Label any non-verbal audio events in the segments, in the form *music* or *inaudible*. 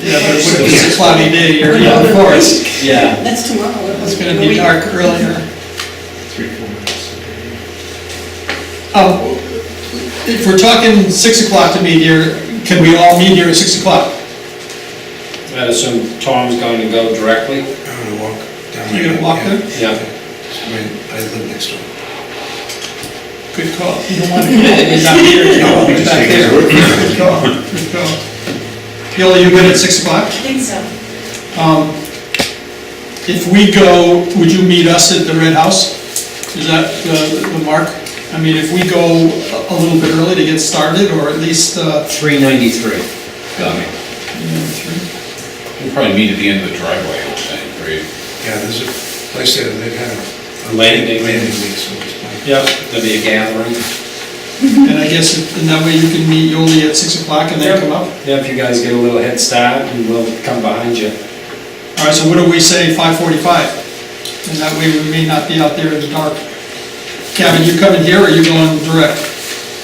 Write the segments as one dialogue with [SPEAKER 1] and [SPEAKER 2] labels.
[SPEAKER 1] Yeah, but it would be a cloudy day, you're in the forest.
[SPEAKER 2] Yeah,
[SPEAKER 3] That's tomorrow.
[SPEAKER 1] It's gonna be dark earlier.
[SPEAKER 4] three, four minutes.
[SPEAKER 1] Um, If we're talking six o'clock to meet here, can we all meet here at six o'clock?
[SPEAKER 5] I assume uh, Tom's going to go directly?
[SPEAKER 4] I'm gonna walk down there.
[SPEAKER 1] You're gonna walk there?
[SPEAKER 5] Yeah.
[SPEAKER 4] I mean, I live next door.
[SPEAKER 1] Good call. You don't want to get it, he's not *laughs* here, you don't want to be back there. Good call, good call. Gil, you good at six o'clock?
[SPEAKER 3] I think so.
[SPEAKER 1] Um, If we go, would you meet us at the Red House? Is that the, the mark? I mean, if we go a- a little bit early to get started, or at least, uh,
[SPEAKER 2] three ninety-three, got me.
[SPEAKER 1] you know, three?
[SPEAKER 6] We'll probably meet at the end of the driveway, I would think, right?
[SPEAKER 4] Yeah, there's a place there, they've had a.
[SPEAKER 5] A landing.
[SPEAKER 4] Landing, so it's fine.
[SPEAKER 5] Yep. There'll be a gathering.
[SPEAKER 1] And I guess, if- and that way you can meet Yoli at six o'clock and then come up?
[SPEAKER 5] Yeah, if you guys get a little head start, and we'll come behind you.
[SPEAKER 1] All right, so what do we say, five forty-five? And that way we may not be out there in the dark. Kevin, you coming here or you going direct?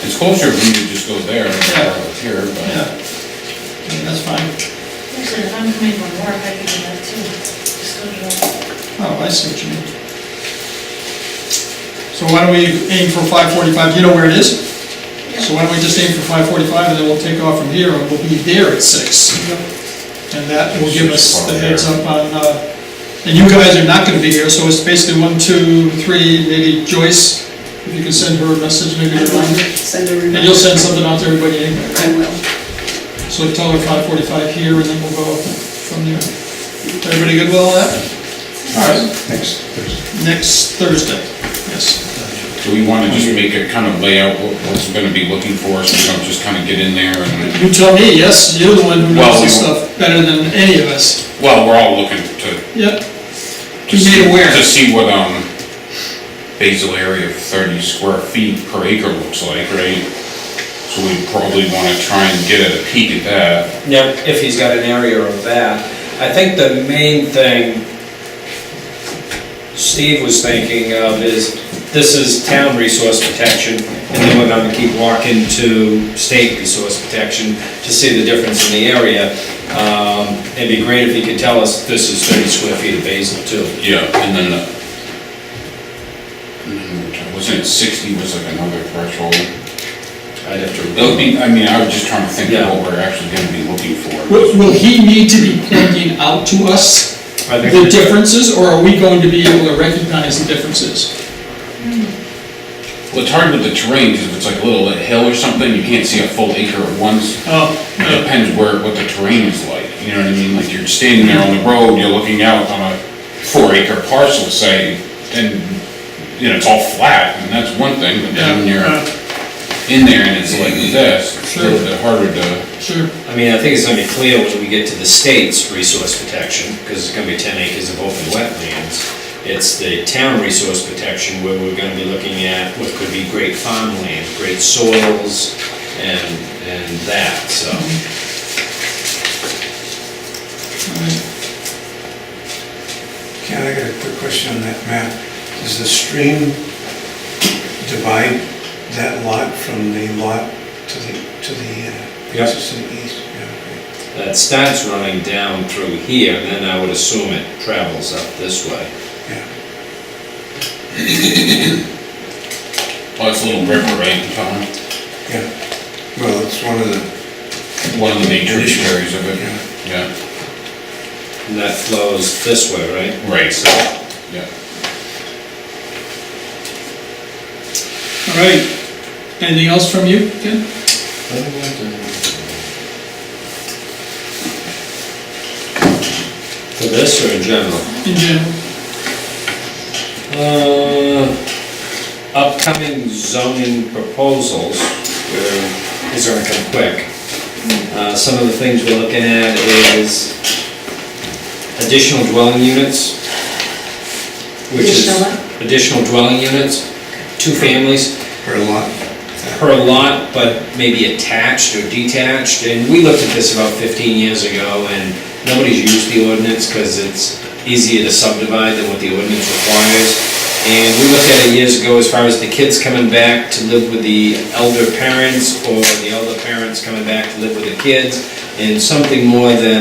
[SPEAKER 6] It's closer for me to just go there than it's here,
[SPEAKER 1] Yeah.
[SPEAKER 6] but
[SPEAKER 1] Yeah, That's fine.
[SPEAKER 3] Actually, if I'm coming from work, I could do that too. Just go to work.
[SPEAKER 1] Oh, I see what you mean. So why don't we aim for five forty-five, you know where it is? So why don't we just aim for five forty-five and then we'll take off from here and we'll be there at six. And that will give us the heads up on, uh, and you guys are not gonna be here, so it's basically one, two, three, maybe Joyce, if you can send her a message, maybe a reminder.
[SPEAKER 3] Send a reminder.
[SPEAKER 1] And you'll send something out to everybody anyway.
[SPEAKER 3] I will.
[SPEAKER 1] So tell her five forty-five here and then we'll go from there. Everybody good with all that? All right.
[SPEAKER 4] Next, there's,
[SPEAKER 1] Next Thursday, yes.
[SPEAKER 6] do we want to just make a kind of layout, what- what's going to be looking for, so we don't just kind of get in there and,
[SPEAKER 1] You tell me, yes, you're the one who knows
[SPEAKER 6] Well,
[SPEAKER 1] this
[SPEAKER 6] we won't.
[SPEAKER 1] stuff better than any of us.
[SPEAKER 6] well, we're all looking to,
[SPEAKER 1] Yep. Be
[SPEAKER 6] to
[SPEAKER 1] made
[SPEAKER 6] see,
[SPEAKER 1] aware.
[SPEAKER 6] to see what, um, basal area of thirty square feet per acre looks like, right? So we probably want to try and get a peek at that.
[SPEAKER 5] Yep. If he's got an area of that. I think the main thing Steve was thinking of is, this is town resource protection, and then we're gonna keep walking to state resource protection to see the difference in the area. Um, It'd be great if he could tell us, this is thirty square feet of basil too.
[SPEAKER 6] Yeah, and then, uh, and then wasn't it sixty was like another threshold?
[SPEAKER 5] I'd have to.
[SPEAKER 6] It'll be, I mean, I was just trying to think
[SPEAKER 5] Yeah.
[SPEAKER 6] of what we're actually gonna be looking for.
[SPEAKER 1] Will will he need to be pointing out to us
[SPEAKER 5] I think-
[SPEAKER 1] the differences, or are we going to be able to recognize the differences?
[SPEAKER 6] Well, it's hard with the terrain, because if it's like a little hill or something, you can't see a full acre at once.
[SPEAKER 5] Uh,
[SPEAKER 1] Oh,
[SPEAKER 6] It depends where, what the terrain is like, you know what I mean? Like, you're standing there on the road, you're looking out on a four acre parcel, say, and, you know, it's all flat, and that's one thing, but then when you're
[SPEAKER 1] Yeah,
[SPEAKER 6] in there and it's like this, it's a
[SPEAKER 1] Sure.
[SPEAKER 6] little bit harder to,
[SPEAKER 1] Sure.
[SPEAKER 5] I mean, I think it's gonna be clear when we get to the state's resource protection, because it's gonna be ten acres of open wetlands. It's the town resource protection where we're gonna be looking at what could be great farmland, great soils, and, and that, so.
[SPEAKER 1] All right.
[SPEAKER 4] Ken, I got a quick question on that map. Does the stream divide that lot from the lot to the, to the, uh,
[SPEAKER 5] Yeah.
[SPEAKER 4] to the east? Yeah,
[SPEAKER 5] That starts running down through here, and then I would assume it travels up this way.
[SPEAKER 4] okay, yeah.
[SPEAKER 6] well, it's a little river, right, Tom?
[SPEAKER 4] yeah. Well, it's one of the,
[SPEAKER 6] One of the main tributaries of
[SPEAKER 4] Yeah.
[SPEAKER 6] it, yeah,
[SPEAKER 5] And that flows this way, right?
[SPEAKER 6] right, so, yeah.
[SPEAKER 1] All right. Anything else from you, Ken?
[SPEAKER 5] For this or in general?
[SPEAKER 1] In general?
[SPEAKER 5] Uh, Upcoming zoning proposals, where, these aren't gonna quick. Uh, Some of the things we're looking at is additional dwelling units. which is
[SPEAKER 3] Additional
[SPEAKER 5] Additional dwelling units, two families
[SPEAKER 4] or a lot.
[SPEAKER 5] per lot, but maybe attached or detached. And we looked at this about 15 years ago, and nobody's used the ordinance because it's easier to subdivide than what the ordinance requires. And we looked at it years ago as far as the kids coming back to live with the elder parents or the elder parents coming back to live with the kids, and something more than